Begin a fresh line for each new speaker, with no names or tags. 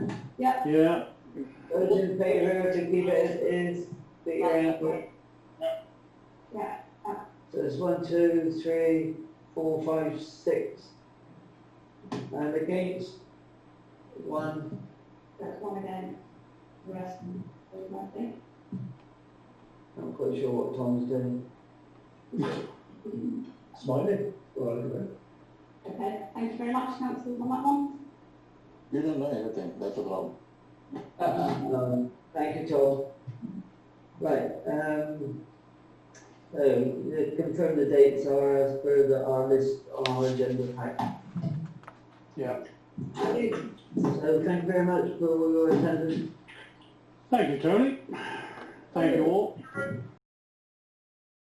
Yeah.
Yeah,
Those in favour to keep it as is, put your hand up.
Yeah.
So it's one, two, three, four, five, six. And against, one,
That's one again, the rest, there's nothing.
I'm quite sure what Tom's doing. Smiling, well, anyway.
Okay, thank you very much, councillors, on that one.
You don't know anything, that's a problem.
Uh, no, Thank you, Tom. Right, um, so, the- confirm the dates are as per the, our list, on our agenda pack.
yeah.
So thank you very much for your attendance.
Thank you, Tony. Thank you all.